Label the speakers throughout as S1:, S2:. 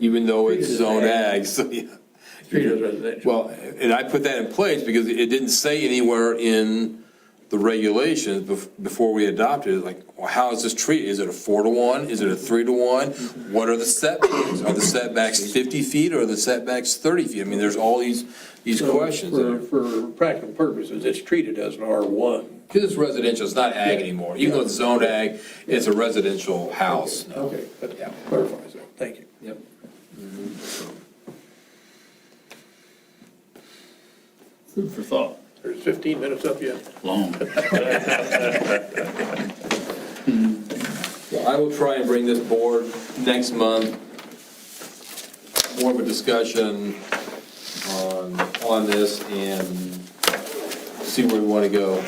S1: even though it's
S2: Treated as
S1: zone
S2: ag.
S1: ag, so, yeah.
S2: Treated as residential.
S1: Well, and I put that in place because it didn't say anywhere in the regulations bef- before we adopted it, like, well, how is this treated? Is it a four to one? Is it a three to one? What are the setbacks? Are the setbacks fifty feet or are the setbacks thirty feet? I mean, there's all these, these
S2: So
S1: questions.
S2: For, for practical purposes, it's treated as an R1.
S1: Because it's residential, it's not ag anymore. Even though it's zoned ag, it's a residential house.
S2: Okay, that clarifies that, thank you.
S1: Yep.
S3: Food for thought.
S2: There's 15 minutes up yet.
S3: Long.
S1: I will try and bring this board next month, more of a discussion on, on this and see where we want to go.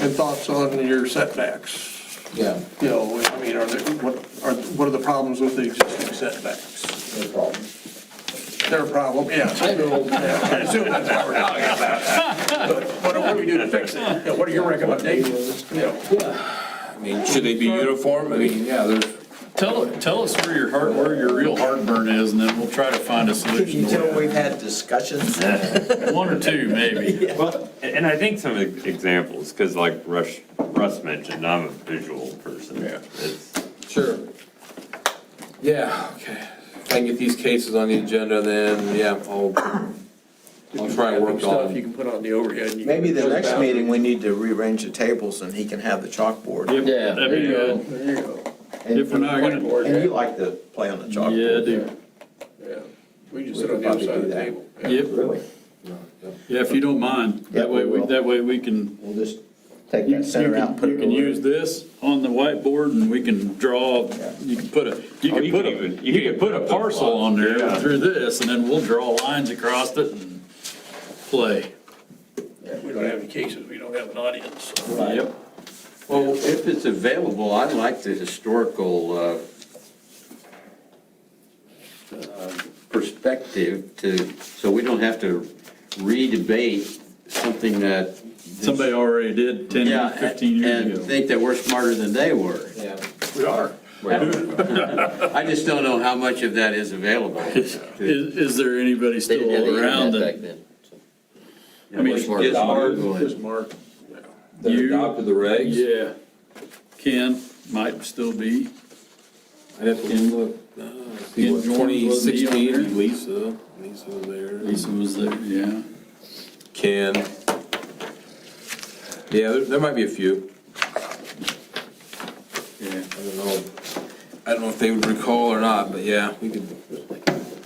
S2: And thoughts on your setbacks?
S1: Yeah,
S2: You know, I mean, are there, what, are, what are the problems with the existing setbacks?
S1: no problem.
S2: They're a problem, yeah. I know. Assuming that's what we're talking about. But What do- what do we do to fix it? You know, What are your recommendations? You know,
S1: I mean, should they be uniform? I mean, yeah, there's.
S3: Tell, tell us where your heart, where your real heartburn is, and then we'll try to find a
S4: Can
S3: solution.
S4: you
S3: to
S4: tell we've had discussions?
S3: it. One or two, maybe.
S5: Well, and and I think some ex- examples, because like Russ, Russ mentioned, I'm a visual person.
S2: Yeah.
S5: It's-
S1: Sure. Yeah, okay. If I can get these cases on the agenda, then, yeah, I'll, I'll try and work
S2: Stuff you
S1: on.
S2: can put on the overhead. you can-
S4: Maybe the next meeting, we need to rearrange the tables and he can have the chalkboard.
S3: Yeah. That'd be good.
S2: There you go.
S4: And-
S3: If we're not gonna,
S4: And you like to play on the
S3: yeah, I
S4: chalkboard?
S3: do.
S2: Yeah, we just sit on the other side of the table.
S3: Yep,
S4: Really?
S3: yeah, if you don't mind, that way, we that way we can
S4: We'll just take
S3: You
S4: that
S3: you
S4: center out
S3: can,
S4: and put
S3: you
S4: it
S3: can use
S4: over.
S3: this on the whiteboard and we can draw, you can put a, you
S5: Oh,
S3: can
S5: you
S3: put
S5: can
S3: a,
S5: even- you
S3: you
S5: can
S3: can put a
S5: put
S3: parcel on there
S5: Yeah.
S3: through this and then we'll draw lines across it and play.
S2: We don't have any cases, we don't have an audience.
S3: Yep.
S6: Well, if it's available, I'd like the historical uh, uh, perspective to, so we don't have to re-debate something that.
S3: Somebody already did
S6: Yeah,
S3: 10, 15 years
S6: And
S3: ago.
S6: think that we're smarter than they were.
S1: Yeah.
S3: We are.
S6: I just don't know how much of that is available.
S3: Is, is there anybody still around that, I mean,
S6: Just
S3: it's
S1: hard.
S6: Googling.
S2: Mark.
S1: That
S3: You-
S1: adopted the regs?
S3: yeah, Ken might still be.
S1: I'd have to look. Uh, see
S3: Ken
S1: what,
S3: Jordan wasn't he on
S1: 2016, Lisa, Lisa was there,
S3: Lisa was there, yeah.
S1: Ken. Yeah, there, there might be a few.
S3: Yeah.
S1: I don't know. I don't know if they would recall or not, but yeah, we could.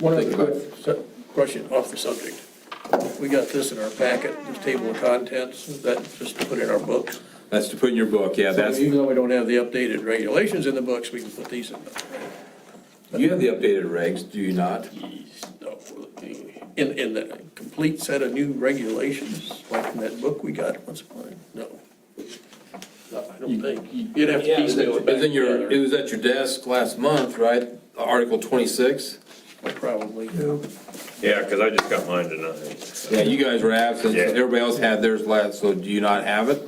S2: One other
S1: Think about
S2: quick su- question off the subject. We got this in our packet, this table of contents, is that just to put in our books.
S1: That's to put in your book, yeah,
S2: So
S1: that's,
S2: Even though we don't have the updated regulations in the books, we can put these in.
S1: you have the updated regs, do you not?
S2: the- In, in the complete set of new regulations, like in that book we got once upon, a- no. No, I don't think, you'd have to
S1: It's
S2: piecemeal it back
S1: in your, it
S2: together,
S1: was at your desk last month, right? Article twenty-six?
S2: probably.
S5: Yeah, because I just got mine tonight.
S1: Yeah, you guys were absent, so
S5: Yeah.
S1: everybody else had theirs last, so do you not have it?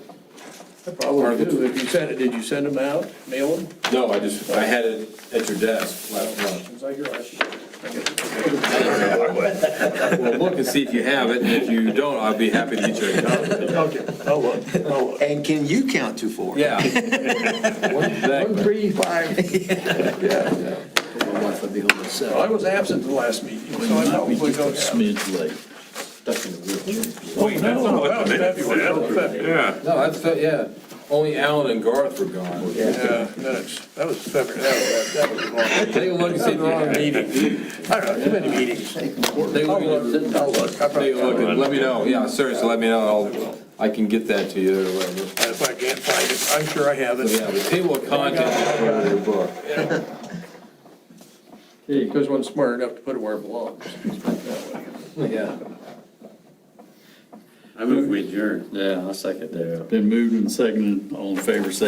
S2: I Probably do, if you sent it, did you send them out, mail them?
S1: No, I just, I had it at your desk last month.
S2: It's like your last-
S1: Well, look and see if you have it, and if you don't, I'd be happy to get you a copy.
S2: Okay, I'll look, I'll look.
S4: And can you count to four?
S1: Yeah. Exactly.
S2: Three, five. Yeah.
S4: My wife would be home at seven.
S2: I was absent the last meeting,
S3: We
S2: so I
S3: might
S2: probably
S3: be just a
S2: don't have.
S3: smidge late.
S4: Stuck in the wheelchair.
S5: Wait, that's
S2: that
S5: not what
S2: was
S5: the minute
S2: February, that was
S5: said. Yeah.
S1: No, that's, yeah, only Alan and Garth were gone.
S2: Yeah, minutes, that was February, that was, that was a long.
S1: Take a look and see if you
S2: Wrong
S1: have it.
S2: meeting. I don't know, too many meetings.
S1: Take a
S2: I'll
S1: look, and-
S2: look, I'll look. I probably-
S1: take a look, and let me know, yeah, seriously, let me know, I'll, I can get that to you, or whatever.
S2: If I can't find it, I'm sure I have
S1: So, yeah,
S2: it.
S1: the table of contents is part of your book.
S2: Because one's smart enough to put it where it belongs.
S1: Yeah.
S6: I move we adjourn.
S3: Been moved and seconded, all in favor, say